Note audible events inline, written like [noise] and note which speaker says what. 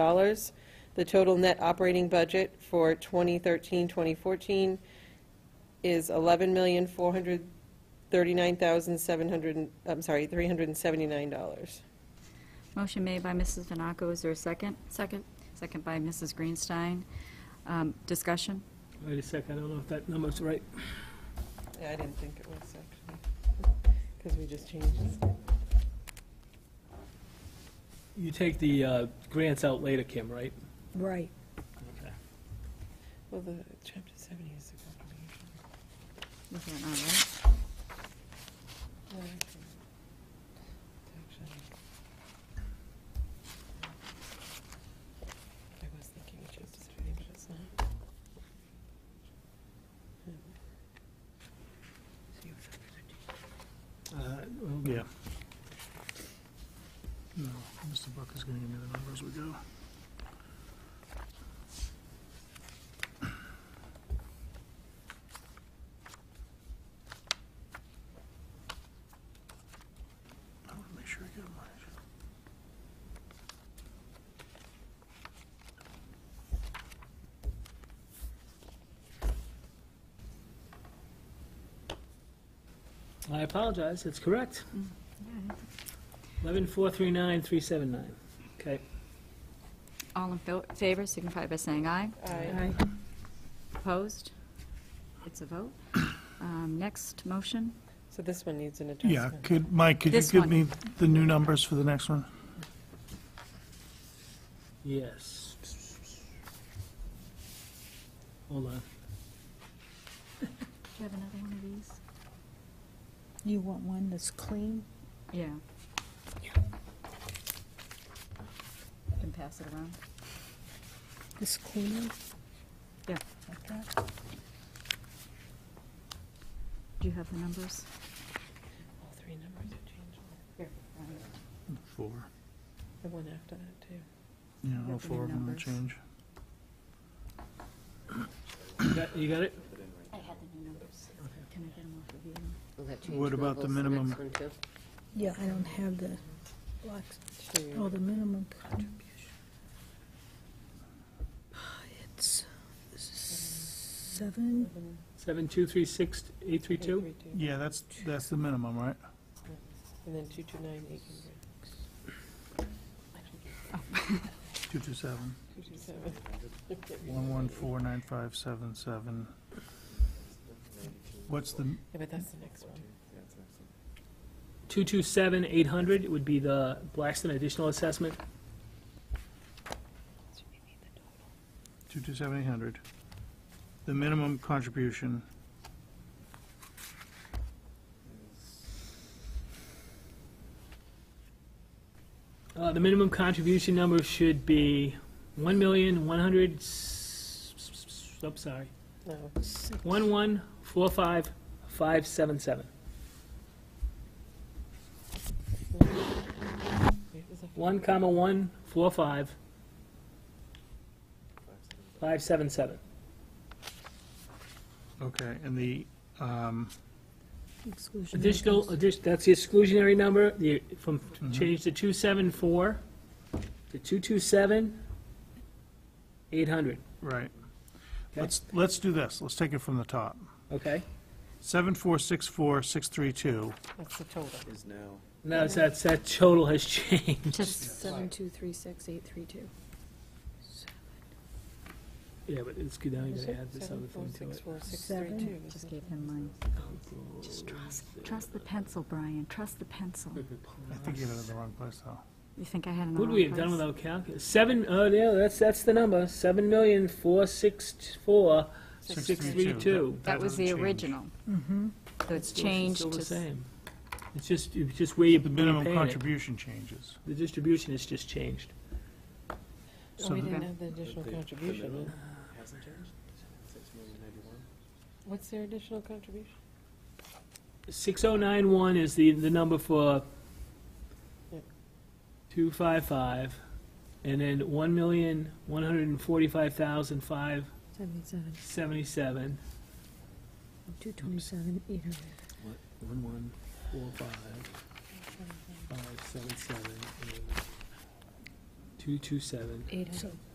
Speaker 1: dollars. The total net operating budget for 2013-2014 is eleven million, four hundred thirty-nine thousand, seven hundred, I'm sorry, three hundred and seventy-nine dollars.
Speaker 2: Motion made by Mrs. Venaco, is there a second?
Speaker 3: Second.
Speaker 2: Second by Mrs. Greenstein. Um, Discussion?
Speaker 4: Wait a second, I don't know if that number's right.
Speaker 1: Yeah, I didn't think it was actually, because we just changed it.
Speaker 4: You take the uh, grants out later, Kim, right?
Speaker 3: Right.
Speaker 4: Okay.
Speaker 1: Well, the chapter seventy is the contribution.
Speaker 2: Is that all right?
Speaker 1: No, I think it's actually- I was thinking of chapter seventy, but it's not. Hmm. So you have chapter 13.
Speaker 4: Uh, well,
Speaker 5: Yeah. No, Mr. Buck is gonna give me the number as we go. I wanna make sure I get them right.
Speaker 4: I apologize, it's correct. Eleven four three nine three seven nine. Okay.
Speaker 2: All in fo- favor, signify by saying aye.
Speaker 1: Aye.
Speaker 2: Opposed? It's a [coughs] vote. Um, Next motion?
Speaker 1: So this one needs an
Speaker 5: Yeah,
Speaker 1: adjustment.
Speaker 5: could, Mike, could you
Speaker 2: This
Speaker 5: give
Speaker 2: one.
Speaker 5: me the new numbers for the next one?
Speaker 4: Yes. Hold on.
Speaker 2: Do you have another one of these?
Speaker 3: You want one that's clean?
Speaker 2: Yeah. You Can pass it around.
Speaker 3: This clean?
Speaker 2: Yeah.
Speaker 3: Like that?
Speaker 2: Do you have the numbers?
Speaker 1: All three numbers are changed.
Speaker 5: Four.
Speaker 1: The one after that, too.
Speaker 5: Yeah,
Speaker 2: What
Speaker 5: all
Speaker 2: the
Speaker 5: four
Speaker 2: new
Speaker 5: of them will
Speaker 2: numbers?
Speaker 5: change.
Speaker 4: You got- You got it?
Speaker 2: I had the new numbers. Can I get them off of you?
Speaker 5: What about the minimum?
Speaker 3: Yeah, I don't have the blocks. Oh, the minimum contribution. It's seven,
Speaker 4: Seven two three six eight three two?
Speaker 5: Yeah, that's, that's the minimum, right?
Speaker 1: And then two two nine eight hundred.
Speaker 5: Two two seven,
Speaker 1: Two two seven.
Speaker 5: one one four nine five seven seven. What's the,
Speaker 1: Yeah, but that's the next one.
Speaker 4: Two two seven eight hundred would be the Blackston additional assessment.
Speaker 5: two two seven eight hundred? The minimum contribution,
Speaker 4: Uh, the minimum contribution number should be one million, one hundred, I'm sorry,
Speaker 1: No,
Speaker 3: six,
Speaker 4: one one, four five, five seven seven.
Speaker 1: wait, is that-
Speaker 4: One comma one, four five, five seven seven.
Speaker 5: okay, and the, um,
Speaker 3: exclusion.
Speaker 4: Additional,
Speaker 3: items.
Speaker 4: addition, that's the exclusionary number, the, from,
Speaker 5: Mhm.
Speaker 4: change to two seven four to two two seven, eight hundred,
Speaker 5: right. Let's, let's do this, let's take it from the top.
Speaker 4: okay?
Speaker 5: Seven four six four six three two,
Speaker 1: That's the total.
Speaker 6: is now.
Speaker 4: Now, it's- that's, that total has [laughs] changed.
Speaker 2: Just
Speaker 7: Seven, two, three, six, eight, three, two.
Speaker 4: Yeah, but it's good, now you
Speaker 1: Is
Speaker 4: gotta
Speaker 1: it
Speaker 4: add this other
Speaker 1: seven four
Speaker 4: thing to
Speaker 1: six
Speaker 4: it.
Speaker 1: four six three
Speaker 3: Seven.
Speaker 1: two?
Speaker 2: just gave him mine. Just trust, trust the pencil, Brian, trust the pencil.
Speaker 5: I think you had it in the wrong place, though.
Speaker 2: You think I had an
Speaker 4: What would we have done
Speaker 2: without?
Speaker 4: without calculus? Seven, oh, yeah, that's, that's the number, seven million, four, six, t- four, six, three, two.
Speaker 2: That was
Speaker 5: doesn't
Speaker 2: the
Speaker 5: change.
Speaker 2: original.
Speaker 4: Mm-hmm.
Speaker 2: So it's
Speaker 4: Still- it's
Speaker 2: changed
Speaker 4: Still the
Speaker 2: to,
Speaker 4: same. It's just, it's just where you
Speaker 5: The
Speaker 4: are
Speaker 5: minimum
Speaker 4: paying it.
Speaker 5: contribution changes.
Speaker 4: The distribution is just changed.
Speaker 1: Oh,
Speaker 5: So
Speaker 1: we
Speaker 5: the-
Speaker 1: didn't have the additional contribution. in.
Speaker 6: Hasn't changed? Six million ninety-one?
Speaker 1: What's their additional contribution?
Speaker 4: Six oh nine one is the, the number for
Speaker 1: Yep.
Speaker 4: two five five, and then one million, one hundred and forty-five thousand, five
Speaker 3: Seventy-seven,
Speaker 4: seventy-seven.
Speaker 3: two twenty-seven, eight hundred.
Speaker 4: One, one, four, five, five, seven, seven, eight,
Speaker 8: Two two seven.
Speaker 4: Eight hundred.
Speaker 3: so